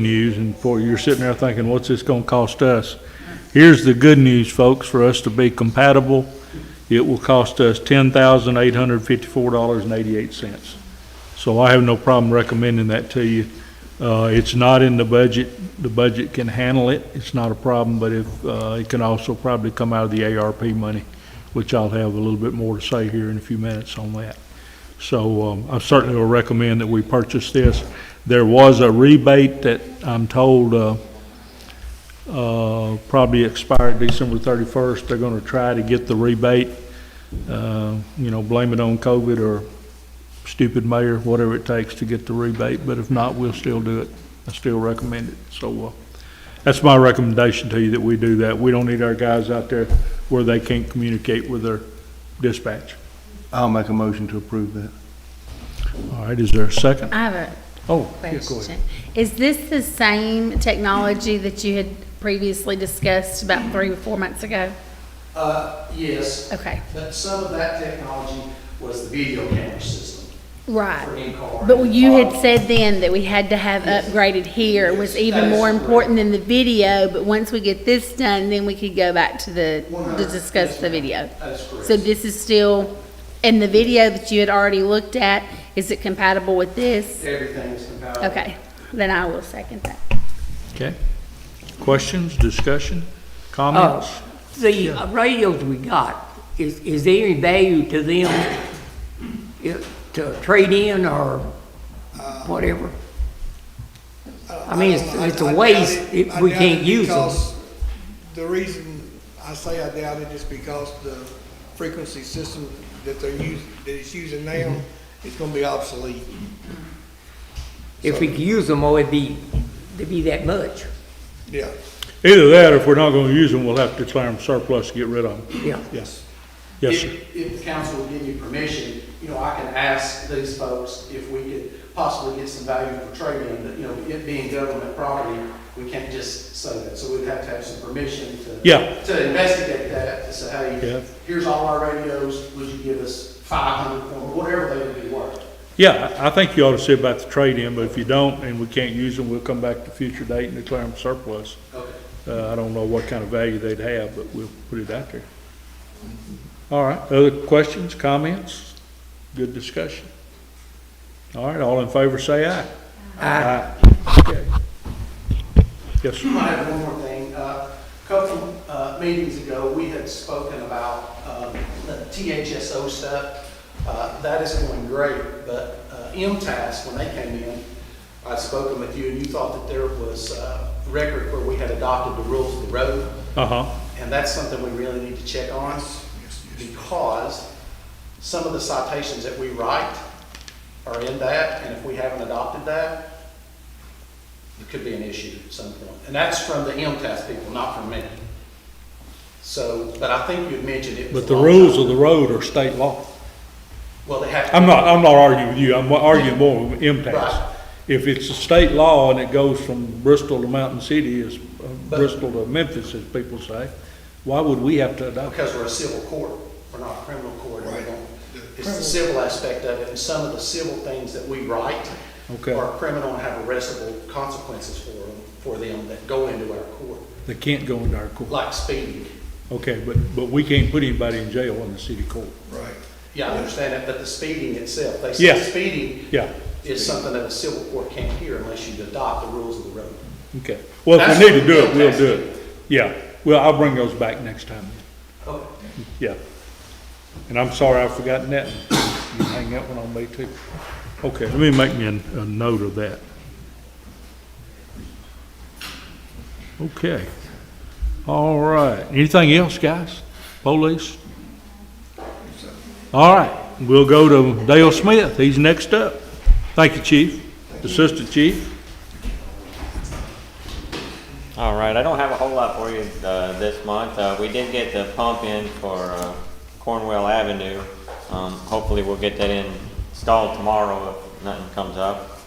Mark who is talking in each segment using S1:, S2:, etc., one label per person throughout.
S1: news, and for, you're sitting there thinking, what's this gonna cost us? Here's the good news, folks, for us to be compatible, it will cost us ten thousand eight hundred fifty-four dollars and eighty-eight cents. So I have no problem recommending that to you. Uh, it's not in the budget, the budget can handle it, it's not a problem, but if, uh, it can also probably come out of the ARP money, which I'll have a little bit more to say here in a few minutes on that. So um, I certainly will recommend that we purchase this. There was a rebate that I'm told uh, uh, probably expired December 31st. They're going to try to get the rebate, uh, you know, blame it on COVID or stupid mayor, whatever it takes to get the rebate, but if not, we'll still do it. I still recommend it. So uh, that's my recommendation to you, that we do that. We don't need our guys out there where they can't communicate with their dispatch.
S2: I'll make a motion to approve that.
S1: All right, is there a second?
S3: I have a
S1: Oh, yeah, go ahead.
S3: question. Is this the same technology that you had previously discussed about three or four months ago?
S4: Uh, yes,
S3: Okay,
S4: but some of that technology was the video camera system for
S3: right.
S4: in-car.
S3: But you had
S4: Uh,
S3: said then that we had to have upgraded here was
S4: Yes, that
S3: even
S4: is
S3: more important than the video, but once we get this done, then we could go back to the, to
S4: 100,
S3: discuss
S4: yes,
S3: the
S4: ma'am.
S3: video.
S4: That is
S3: So
S4: correct.
S3: this is still, and the video that you had already looked at, is it compatible with this?
S4: Everything is compatible.
S3: Okay, then I will second that.
S1: Okay. Questions, discussion,
S5: Uh,
S1: comments?
S5: The radios we got, is, is there any value to them if- to trade in or whatever? I mean, it's, it's a waste if we can't use them.
S6: The reason I say I doubt it is because the frequency system that they're using, that it's using now, is gonna be obsolete.
S5: If we could use them, oh, it'd be, it'd be that much,
S6: Yeah,
S1: Either that, or if we're not gonna use them, we'll have to declare them surplus, to get rid of them.
S5: yeah.
S6: yes.
S1: Yes, sir.
S4: If, if the council will give me permission, you know, I can ask these folks if we could possibly get some value for trading, but, you know, it being government property, we can't just say that, so we'd have to have some permission to.
S1: Yeah.
S4: To investigate that, to say,
S1: Yeah.
S4: hey, here's all our radios, would you give us five hundred, or whatever they would be worth?
S1: Yeah, I I think you ought to see about the trade-in, but if you don't and we can't use them, we'll come back at a future date and declare them surplus.
S4: Okay.
S1: Uh, I don't know what kind of value they'd have, but we'll put it out there. All right, other questions, comments? Good discussion. All right, all in favor, say aye. Aye. Okay. Yes, sir.
S4: I have one more thing. Uh, A Couple uh, meetings ago, we had spoken about um, the THSO stuff. Uh, That is going great, but uh, MTS, when they came in, I'd spoken with you, and you thought that there was uh, a record where we had adopted the rules of the road.
S1: Uh-huh.
S4: And that's something we really need to check on, because some of the citations that we write are in that, and if we haven't adopted that, it could be an issue at some point. And that's from the MTS people, not from me. So, but I think you had mentioned it. was
S1: But
S4: a
S1: the
S4: long
S1: rules
S4: time.
S1: of the road are state law.
S4: Well, they have. to-
S1: I'm not, I'm not arguing with you, I'm arguing more with
S4: Right.
S1: impasse. If it's a state law and it goes from Bristol to Mountain City, as uh,
S4: But-
S1: Bristol to Memphis, as people say, why would we have to adopt it?
S4: Because we're a civil court, we're not a criminal court. and we don't- It's the civil aspect of it, and some of the civil things that we write
S1: Okay.
S4: are criminal and have arrestable consequences for them, for them that go into our court,
S1: They can't go into our court.
S4: like speeding.
S1: Okay, but, but we can't put anybody in jail in the city court.
S6: Right.
S4: Yeah, I understand that, but the speeding itself, they
S1: Yeah.
S4: say speeding
S1: Yeah,
S4: is something that a civil court can't hear unless you adopt the rules of the road.
S1: okay. Well, if
S4: That's
S1: we need to do it,
S4: what
S1: we'll
S4: impasse
S1: do it. Yeah, well, I'll bring those back next time,
S4: Okay.
S1: yeah. And I'm sorry I've forgotten that. You can hang that one on me too. Okay, let me make me a, a note of that. Okay. All right. Anything else, guys? Police? All right, we'll go to Dale Smith. He's next up. Thank you, Chief, Assistant Chief.
S7: All right, I don't have a whole lot for you uh, this month. Uh, We did get the pump in for uh, Cornwell Avenue. Um, Hopefully, we'll get that installed tomorrow if nothing comes up.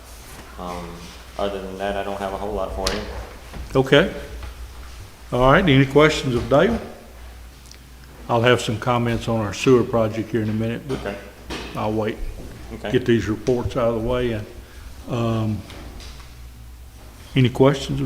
S7: Um, Other than that, I don't have a whole lot for you.
S1: Okay. All right, any questions of Dale? I'll have some comments on our sewer project here in a minute, but
S7: Okay.
S1: I'll wait.
S7: Okay.
S1: Get these reports out of the way and, um, Any questions